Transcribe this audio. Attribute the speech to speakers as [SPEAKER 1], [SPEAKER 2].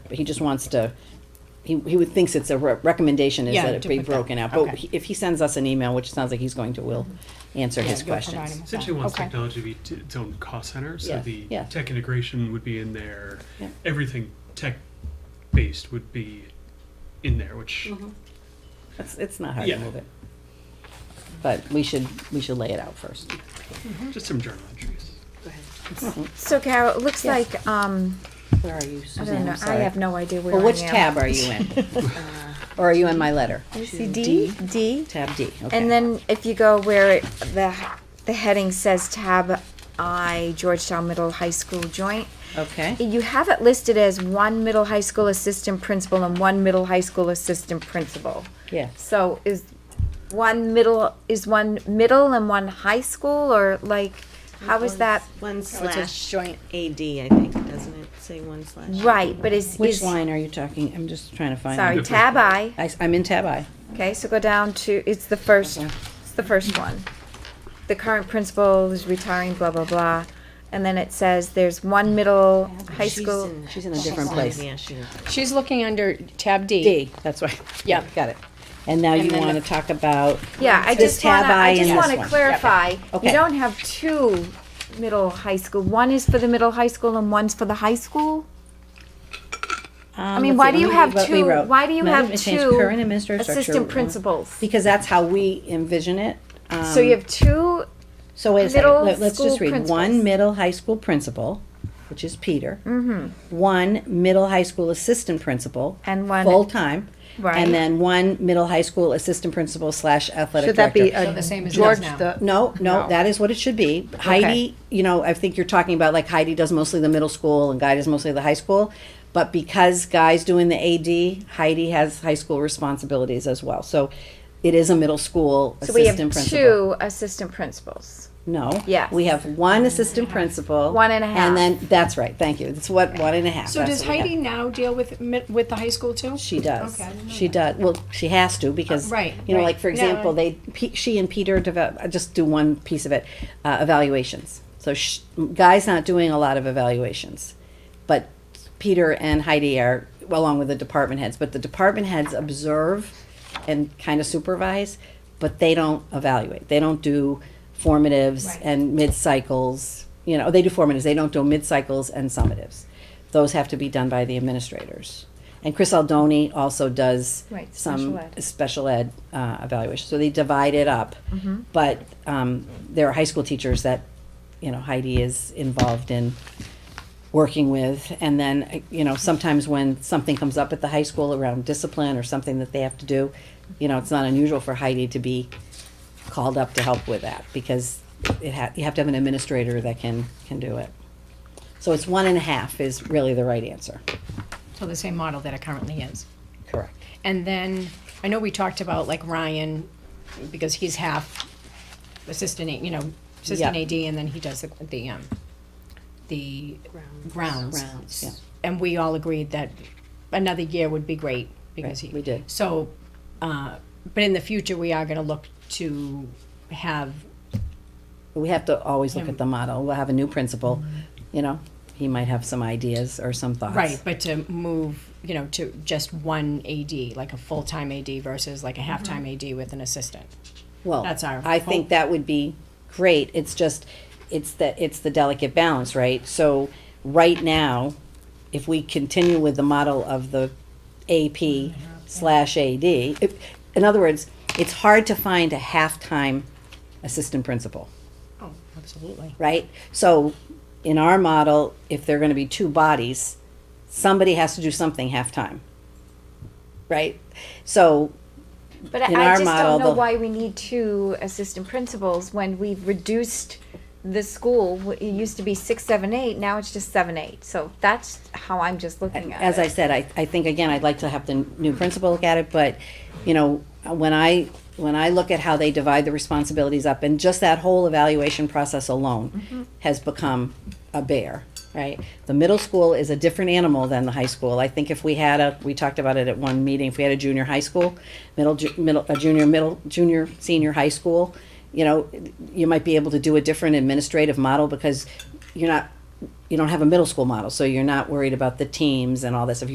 [SPEAKER 1] but he just wants to, he, he would, thinks it's a re- recommendation is
[SPEAKER 2] Yeah,
[SPEAKER 1] that it
[SPEAKER 2] to
[SPEAKER 1] be
[SPEAKER 2] put that-
[SPEAKER 1] broken out. But
[SPEAKER 2] okay.
[SPEAKER 1] he- if he sends us an email, which sounds like he's going to, we'll answer his
[SPEAKER 2] Yeah, you'll provide him
[SPEAKER 1] questions.
[SPEAKER 2] with
[SPEAKER 3] Essentially
[SPEAKER 2] that.
[SPEAKER 3] wants
[SPEAKER 2] Okay.
[SPEAKER 3] technology to be t- its own cost center, so
[SPEAKER 1] Yeah,
[SPEAKER 3] the
[SPEAKER 1] yeah.
[SPEAKER 3] tech integration would be in there.
[SPEAKER 1] Yeah.
[SPEAKER 3] Everything tech-based would be in there, which
[SPEAKER 1] It's, it's not hard to
[SPEAKER 3] Yeah.
[SPEAKER 1] move it. But we should, we should lay it out first.
[SPEAKER 3] just some journal entries.
[SPEAKER 4] So Carol, it looks
[SPEAKER 1] Yeah.
[SPEAKER 4] like, um,
[SPEAKER 1] Where are you,
[SPEAKER 4] I
[SPEAKER 1] Suzanne?
[SPEAKER 4] don't know,
[SPEAKER 1] I'm
[SPEAKER 4] I
[SPEAKER 1] sorry.
[SPEAKER 4] have no idea where I
[SPEAKER 1] Well,
[SPEAKER 4] am.
[SPEAKER 1] which tab are you in? Or are you in my letter?
[SPEAKER 4] See D, D,
[SPEAKER 1] Tab D, okay.
[SPEAKER 4] and then if you go where it, the, the heading says tab I Georgetown Middle High School Joint,
[SPEAKER 1] Okay.
[SPEAKER 4] you have it listed as one middle high school assistant principal and one middle high school assistant principal.
[SPEAKER 1] Yeah.
[SPEAKER 4] So is one middle, is one middle and one high school, or like, how is that?
[SPEAKER 5] One slash joint AD, I think, doesn't it say one slash?
[SPEAKER 4] Right, but is,
[SPEAKER 1] Which
[SPEAKER 4] is-
[SPEAKER 1] line are you talking? I'm just trying to find.
[SPEAKER 4] sorry,
[SPEAKER 1] it.
[SPEAKER 4] tab I.
[SPEAKER 1] I, am in tab I.
[SPEAKER 4] Okay, so go down to, it's the first,
[SPEAKER 1] Okay.
[SPEAKER 4] it's the first one. The current principal is retiring, blah, blah, blah. And then it says there's one middle high
[SPEAKER 5] She's
[SPEAKER 4] school.
[SPEAKER 5] in-
[SPEAKER 1] She's in a different place.
[SPEAKER 5] Yeah, she is.
[SPEAKER 2] She's looking under tab D.
[SPEAKER 1] D, that's right.
[SPEAKER 2] Yeah.
[SPEAKER 1] Got it. And now you
[SPEAKER 2] then
[SPEAKER 1] want to talk about,
[SPEAKER 4] Yeah, I
[SPEAKER 1] This
[SPEAKER 4] just wanna,
[SPEAKER 1] tab I
[SPEAKER 4] I
[SPEAKER 1] and
[SPEAKER 4] just
[SPEAKER 1] this
[SPEAKER 4] wanna
[SPEAKER 1] one.
[SPEAKER 4] clarify,
[SPEAKER 1] Okay.
[SPEAKER 4] you don't have two middle high school. One is for the middle high school and one's for the high school?
[SPEAKER 1] Um,
[SPEAKER 4] I mean, why do you have two, why do you have
[SPEAKER 1] Current
[SPEAKER 4] two
[SPEAKER 1] administrative structure.
[SPEAKER 4] assistant principals?
[SPEAKER 1] Because that's how we envision it. Um,
[SPEAKER 4] So you have two,
[SPEAKER 1] So wait a second,
[SPEAKER 4] middle
[SPEAKER 1] Let- let's just
[SPEAKER 4] school
[SPEAKER 1] read. One
[SPEAKER 4] principals.
[SPEAKER 1] middle high school principal, which is Peter.
[SPEAKER 4] Mm-hmm.
[SPEAKER 1] One middle high school assistant principal.
[SPEAKER 4] And one-
[SPEAKER 1] Full-time.
[SPEAKER 4] Right.
[SPEAKER 1] And then one middle high school assistant principal slash athletic
[SPEAKER 6] Should that
[SPEAKER 1] director.
[SPEAKER 6] be
[SPEAKER 2] So
[SPEAKER 6] a
[SPEAKER 2] the same as it
[SPEAKER 6] George
[SPEAKER 2] is now.
[SPEAKER 6] the,
[SPEAKER 1] No, no,
[SPEAKER 6] No.
[SPEAKER 1] that is what it should be. Heidi, you know, I think you're talking about like Heidi does mostly the middle school and Guy does mostly the high school. But because Guy's doing the AD, Heidi has high school responsibilities as well. So it is a middle school
[SPEAKER 4] so we have
[SPEAKER 1] assistant principal.
[SPEAKER 4] two assistant principals.
[SPEAKER 1] No.
[SPEAKER 4] Yes.
[SPEAKER 1] We have one assistant principal.
[SPEAKER 4] One and a half.
[SPEAKER 1] And then, that's right, thank you. It's what, one and a half.
[SPEAKER 2] So
[SPEAKER 1] That's
[SPEAKER 2] does
[SPEAKER 1] what we have.
[SPEAKER 2] Heidi now deal with, mi- with the high school too?
[SPEAKER 1] She does.
[SPEAKER 2] Okay, I didn't know
[SPEAKER 1] She does. Well, she has to because,
[SPEAKER 2] Uh, right,
[SPEAKER 1] you know,
[SPEAKER 2] right.
[SPEAKER 1] like for
[SPEAKER 2] No,
[SPEAKER 1] example,
[SPEAKER 2] I-
[SPEAKER 1] they P, she and Peter develop. I just do one piece of it. Uh, evaluations. So sh, guy's not doing a lot of evaluations, but Peter and Heidi are well, along with the department heads. But the department heads observe and kind of supervise, but they don't evaluate. They don't do formatives
[SPEAKER 2] Right.
[SPEAKER 1] and mid cycles. You know, they do formatives. They don't do mid cycles and summatives. Those have to be done by the administrators. And Chris Aldoni also does
[SPEAKER 4] Right,
[SPEAKER 1] some
[SPEAKER 4] special ed.
[SPEAKER 1] special ed uh, evaluation. So they divide it up. But um, there are high school teachers that, you know, Heidi is involved in working with. And then, uh, you know, sometimes when something comes up at the high school around discipline or something that they have to do, you know, it's not unusual for Heidi to be called up to help with that because it ha- you have to have an administrator that can, can do it. So it's one and a half is really the right answer.
[SPEAKER 2] So the same model that it currently is.
[SPEAKER 1] Correct.
[SPEAKER 2] And then, I know we talked about like Ryan, because he's half assistant, A- you know, assistant
[SPEAKER 1] Yeah.
[SPEAKER 2] AD, and then he does the, the, um, the grounds.
[SPEAKER 1] Grounds, yeah.
[SPEAKER 2] And we all agreed that another year would be great, because he.
[SPEAKER 1] Right, we did.
[SPEAKER 2] So, uh, but in the future, we are gonna look to have,
[SPEAKER 1] We have to always look
[SPEAKER 2] Him.
[SPEAKER 1] at the model. We'll have a new principal, you know, he might have some ideas or some thoughts.
[SPEAKER 2] right, but to move, you know, to just one AD, like a full-time AD versus like a half-time AD with an assistant.
[SPEAKER 1] Well,
[SPEAKER 2] That's our
[SPEAKER 1] I
[SPEAKER 2] hope.
[SPEAKER 1] think that would be great. It's just, it's the, it's the delicate balance, right? So right now, if we continue with the model of the AP slash AD, if- in other words, it's hard to find a half-time assistant principal.
[SPEAKER 2] Oh, absolutely.
[SPEAKER 1] right? So in our model, if they're gonna be two bodies, somebody has to do something half-time, right? So,
[SPEAKER 4] But
[SPEAKER 1] in
[SPEAKER 4] I
[SPEAKER 1] our
[SPEAKER 4] I just
[SPEAKER 1] model,
[SPEAKER 4] don't know
[SPEAKER 1] the-
[SPEAKER 4] why we need two assistant principals when we've reduced the school. W- It used to be six, seven, eight, now it's just seven, eight. So that's how I'm just looking at
[SPEAKER 1] as I
[SPEAKER 4] it.
[SPEAKER 1] said, I, I think, again, I'd like to have the new principal look at it, but, you know, when I, when I look at how they divide the responsibilities up, and just that whole evaluation process alone has become a bear, right? The middle school is a different animal than the high school. I think if we had a, we talked about it at one meeting, if we had a junior high school, middle, ju- middle, a junior, middle, junior, senior high school, you know, you might be able to do a different administrative model because you're not, you don't have a middle school model, so you're not worried about the teams and all this. If